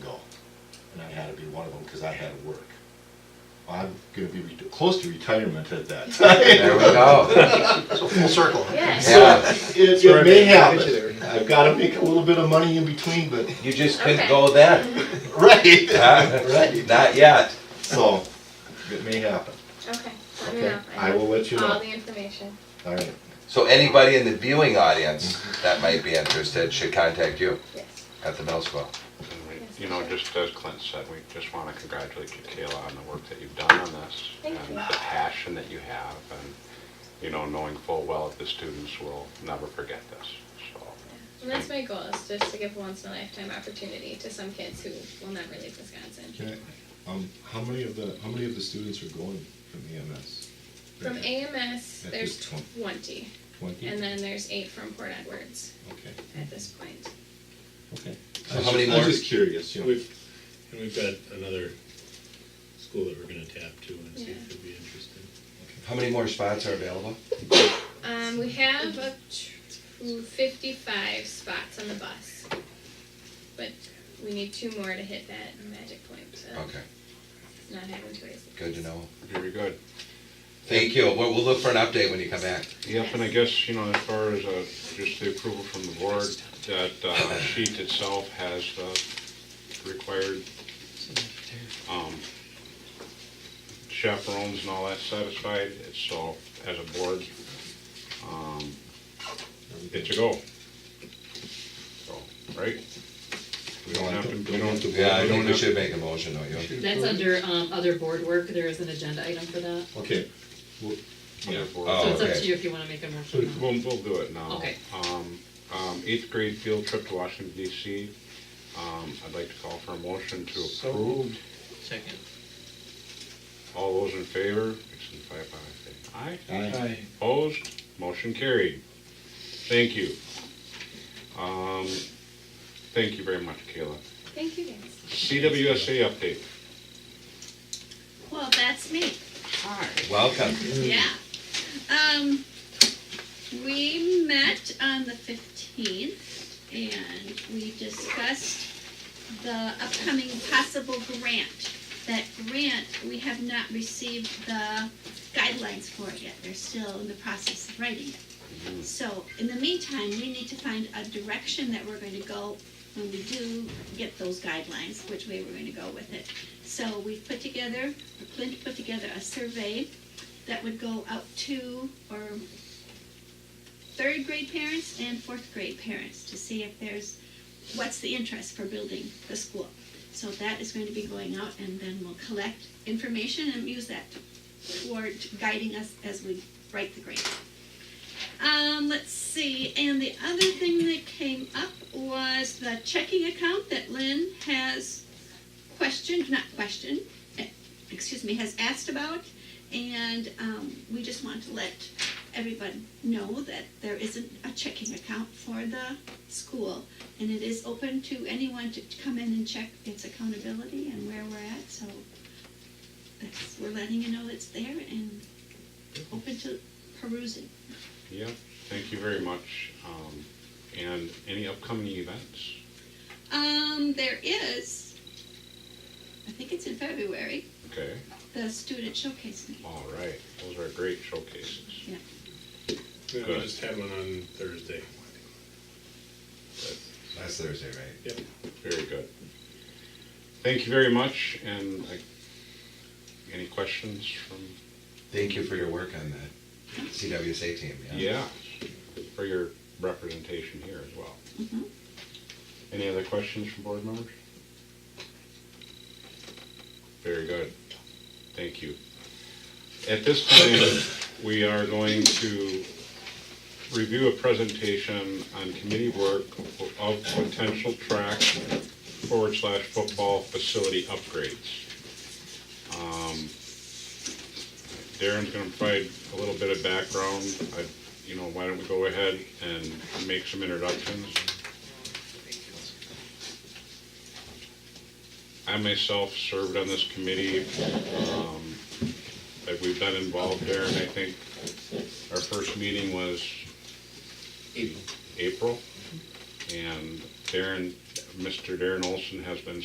and I had to be one of them because I had to work. I'm gonna be re- close to retirement at that time. There we go. So full circle. Yeah. It, it may Got you happen. I've gotta make a little bit of money in between, but, You just couldn't go Mm-hmm. then. right, huh? right, Not yet. so, it may happen. Okay, let me Okay, know. I will let you All know. the information. All right, So anybody in the viewing audience that might be interested should contact you Yes. at the middle school. And we, you know, just as Clint said, we just want to congratulate you, Kayla, on the work that you've done on this. Thank you. And the passion that you have, and, you know, knowing full well that the students will never forget this, so. And that's my goal is just to give a once in a lifetime opportunity to some kids who will never leave Wisconsin. can I, um, how many of the, how many of the students are going from E EMS? From AMS, That there's is twen- twenty, E Twenty? and then there's eight from Port Edwards Okay, at this point. okay. So I was how many just- I was more? just curious, you know. We've, and we've got another school that we're gonna tap to and see if it'd be interested. How many more spots are available? Um, we have up to fifty-five spots on the bus, but we need two more to hit that magic point, so Okay, not having two days. good to know. Very good. Thank you. We'll, we'll look for an update when you come back. Yep, and I guess, you know, as far as, uh, just the approval from the board, that, uh, sheet itself has the required, um, chaperones and all that satisfied, It's so, as a board, um, it's a go. So, right? We don't have to, we don't. Yeah, I think we don't we have to- should make a motion, don't you? That's under, um, other board work, there is an agenda item for that, Okay. Well, Yeah, Oh, so it's up okay. to you if you wanna make a We'll, motion. we'll do it now. Okay. Um, um, eighth grade field trip to Washington DC. Um, I'd like to call for a motion to approve. Second. All those in favor, it's in five, five, say aye. Aye. Opposed, motion carried. Thank you. Um, thank you very much, Kayla. Thank you guys. CWSA update. Well, that's me. Hi. Welcome. Yeah. Um, we met on the fifteenth and we discussed the upcoming possible grant. That grant, we have not received the guidelines for it yet. They're still in the process of writing it. So in the meantime, we need to find a direction that we're going to go when we do get those guidelines, which way we're going to go with it. So we've put together, Clint put together a survey that would go out to or third grade parents and fourth grade parents to see if there's what's the interest for building the school. So that is going to be going out and then we'll collect information and use that toward guiding us as we write the grant. Um, let's see, and the other thing that came up was the checking account that Lynn has questioned, not questioned, eh, excuse me, has asked about. And um, we just want to let everyone know that there isn't a checking account for the school. And it is open to anyone to to come in and check its accountability and where we're at. So that's, we're letting you know it's there and open to perusing. Yeah, thank you very much. Um, and any upcoming events? Um, there is, I think it's in February, Okay, the student showcase meeting. all right. Those are great showcases. Yeah, Good. We just had one on Thursday. Last Thursday, right? Very good. Thank you very much, and I- any questions from, Thank you for your work on the CWSA team, yeah? yeah, for your representation here as well. Mhm. Any other questions from board members? Very good. Thank you. At this point, we are going to review a presentation on committee work of potential track forward slash football facility upgrades. Um, Darren's gonna provide a little bit of background. I, you know, why don't we go ahead and make some introductions? I myself served on this committee, um, that we've been involved there, and I think our first meeting was April. And Darren, Mr. Darren Olson has been